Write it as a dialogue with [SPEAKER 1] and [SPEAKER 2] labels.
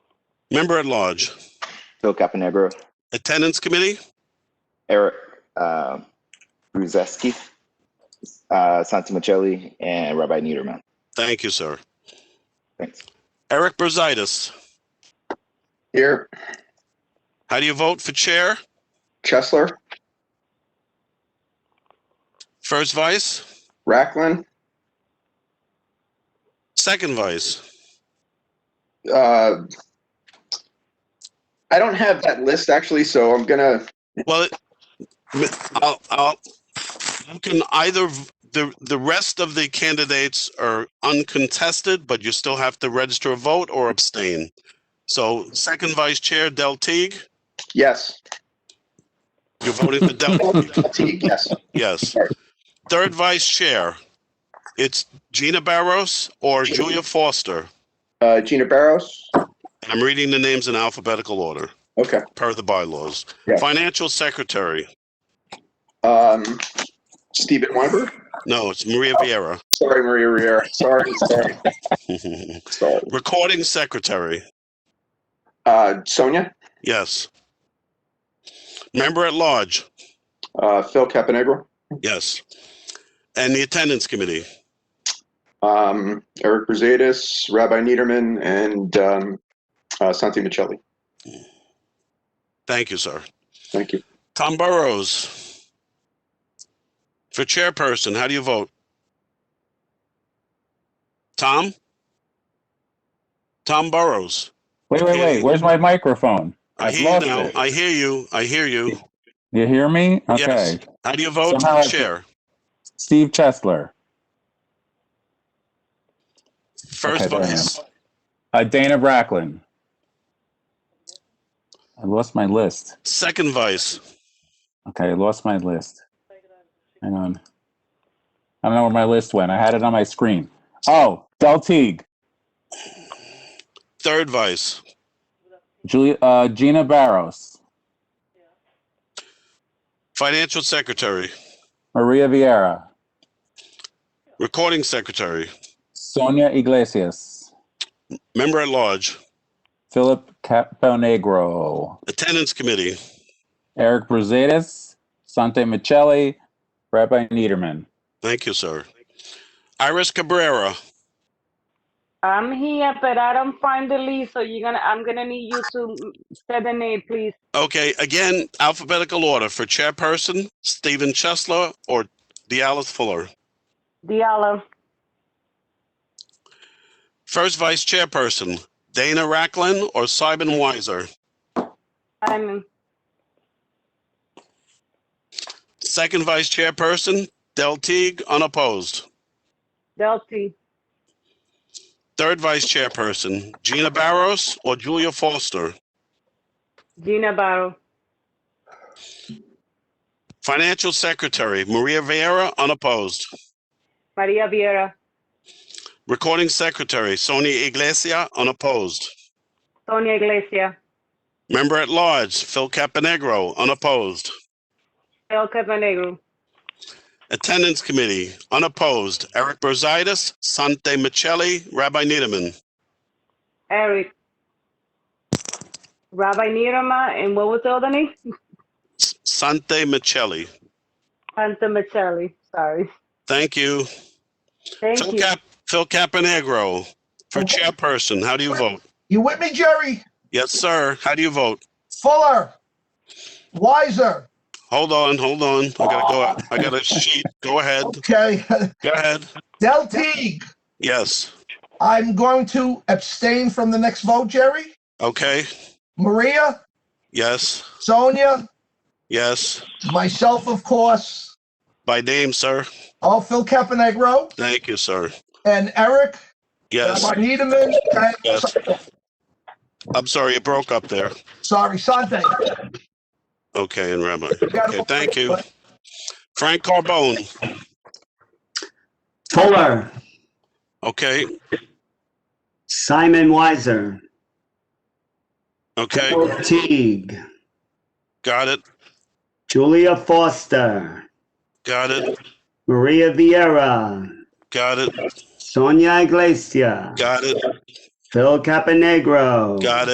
[SPEAKER 1] Member at large.
[SPEAKER 2] Phil Caponegro,
[SPEAKER 1] Attendance committee,
[SPEAKER 2] Eric uh, Bruzeski, uh, Santi Michelli, and Rabbi Niederman.
[SPEAKER 1] thank you, sir.
[SPEAKER 2] Thanks.
[SPEAKER 1] Eric Brusitis,
[SPEAKER 3] Here,
[SPEAKER 1] how do you vote for chair?
[SPEAKER 3] Chesler,
[SPEAKER 1] First vice,
[SPEAKER 3] Racklin,
[SPEAKER 1] second vice.
[SPEAKER 3] uh, I don't have that list actually, so I'm gonna,
[SPEAKER 1] Well, I'll, I'll, you can either, the, the rest of the candidates are uncontested, but you still have to register a vote or abstain. So second vice chair, Del Teague,
[SPEAKER 3] yes.
[SPEAKER 1] you're voting for Del Teague,
[SPEAKER 3] Teague, yes.
[SPEAKER 1] yes. Third vice chair, it's Gina Barros or Julia Foster.
[SPEAKER 3] Uh, Gina Barros,
[SPEAKER 1] And I'm reading the names in alphabetical order,
[SPEAKER 3] okay.
[SPEAKER 1] per the bylaws.
[SPEAKER 3] Yeah.
[SPEAKER 1] Financial secretary,
[SPEAKER 3] Um, Stephen Weinberg,
[SPEAKER 1] no, it's Maria Vieira.
[SPEAKER 3] sorry, Maria Riera, sorry, sorry, sorry.
[SPEAKER 1] Recording secretary,
[SPEAKER 3] Uh, Sonia,
[SPEAKER 1] yes. Member at large,
[SPEAKER 3] uh, Phil Caponegro,
[SPEAKER 1] yes. And the attendance committee,
[SPEAKER 3] um, Eric Brusadas, Rabbi Niederman, and, um, uh, Santi Michelli.
[SPEAKER 1] thank you, sir.
[SPEAKER 3] Thank you.
[SPEAKER 1] Tom Burrows. For chairperson, how do you vote? Tom? Tom Burrows.
[SPEAKER 4] Wait, wait, wait. Where's my microphone?
[SPEAKER 1] I
[SPEAKER 4] I've
[SPEAKER 1] hear you
[SPEAKER 4] lost
[SPEAKER 1] now.
[SPEAKER 4] it.
[SPEAKER 1] I hear you. I hear you.
[SPEAKER 4] You hear me?
[SPEAKER 1] Yes.
[SPEAKER 4] Okay.
[SPEAKER 1] How do you vote
[SPEAKER 4] Somehow
[SPEAKER 1] for
[SPEAKER 4] I-
[SPEAKER 1] chair?
[SPEAKER 4] Steve Chesler,
[SPEAKER 1] First
[SPEAKER 4] Okay, there I
[SPEAKER 1] vice.
[SPEAKER 4] uh, Dana Bracklin. I lost my list.
[SPEAKER 1] Second vice.
[SPEAKER 4] Okay, I lost my list. Hang on. I don't know where my list went. I had it on my screen. Oh, Del Teague,
[SPEAKER 1] Third vice.
[SPEAKER 4] Julia, uh, Gina Barros,
[SPEAKER 1] Financial secretary.
[SPEAKER 4] Maria Vieira,
[SPEAKER 1] Recording secretary.
[SPEAKER 4] Sonia Iglesias,
[SPEAKER 1] Member at large.
[SPEAKER 4] Philip Caponegro,
[SPEAKER 1] Attendance committee.
[SPEAKER 4] Eric Brusadas, Sante Michelli, Rabbi Niederman.
[SPEAKER 1] Thank you, sir. Iris Cabrera.
[SPEAKER 5] I'm here, but I don't find the list, so you're gonna, I'm gonna need you to say the name, please.
[SPEAKER 1] Okay, again, alphabetical order for chairperson, Stephen Chesler or Dialis Fuller.
[SPEAKER 5] Diallo,
[SPEAKER 1] First vice chairperson, Dana Racklin or Simon Weiser.
[SPEAKER 5] Simon,
[SPEAKER 1] Second vice chairperson, Del Teague, unopposed.
[SPEAKER 5] Delty,
[SPEAKER 1] Third vice chairperson, Gina Barros or Julia Foster.
[SPEAKER 5] Gina Barrow,
[SPEAKER 1] Financial secretary, Maria Vieira, unopposed.
[SPEAKER 5] Maria Vieira,
[SPEAKER 1] Recording secretary, Sonia Iglesia, unopposed.
[SPEAKER 5] Sonia Iglesias,
[SPEAKER 1] Member at large, Phil Caponegro, unopposed.
[SPEAKER 5] El Caponegro,
[SPEAKER 1] Attendance Committee, unopposed, Eric Brusitis, Sante Michelli, Rabbi Niederman.
[SPEAKER 5] Eric, Rabbi Nirama, and what was the other name?
[SPEAKER 1] S- Sante Michelli,
[SPEAKER 5] Santa Michelli, sorry.
[SPEAKER 1] thank you.
[SPEAKER 5] Thank
[SPEAKER 1] Phil
[SPEAKER 5] you.
[SPEAKER 1] Cap, Phil Caponegro, for chairperson, how do you vote?
[SPEAKER 6] You with me, Jerry?
[SPEAKER 1] Yes, sir, how do you vote?
[SPEAKER 6] Fuller. Wiser.
[SPEAKER 1] Hold on, hold on, I gotta go, out. I got a sheet, go ahead,
[SPEAKER 6] Okay.
[SPEAKER 1] go ahead,
[SPEAKER 6] Del Teague.
[SPEAKER 1] yes,
[SPEAKER 6] I'm going to abstain from the next vote, Jerry.
[SPEAKER 1] okay,
[SPEAKER 6] Maria,
[SPEAKER 1] yes,
[SPEAKER 6] Sonia,
[SPEAKER 1] yes,
[SPEAKER 6] myself, of course.
[SPEAKER 1] by name, sir,
[SPEAKER 6] Oh, Phil Caponegro
[SPEAKER 1] thank you, sir,
[SPEAKER 6] and Eric,
[SPEAKER 1] yes,
[SPEAKER 6] Rabbi Niederman, and
[SPEAKER 1] yes. I'm sorry, it broke up there,
[SPEAKER 6] sorry, Sante.
[SPEAKER 1] okay, and Rabbi, okay, thank you. Frank Carbone.
[SPEAKER 7] Fuller,
[SPEAKER 1] Okay,
[SPEAKER 7] Simon Weiser,
[SPEAKER 1] okay,
[SPEAKER 7] Phil Teague,
[SPEAKER 1] got it,
[SPEAKER 7] Julia Foster,
[SPEAKER 1] got it,
[SPEAKER 7] Maria Vieira,
[SPEAKER 1] got it,
[SPEAKER 7] Sonia Iglesias,
[SPEAKER 1] got it,
[SPEAKER 7] Phil Caponegro.
[SPEAKER 1] got it.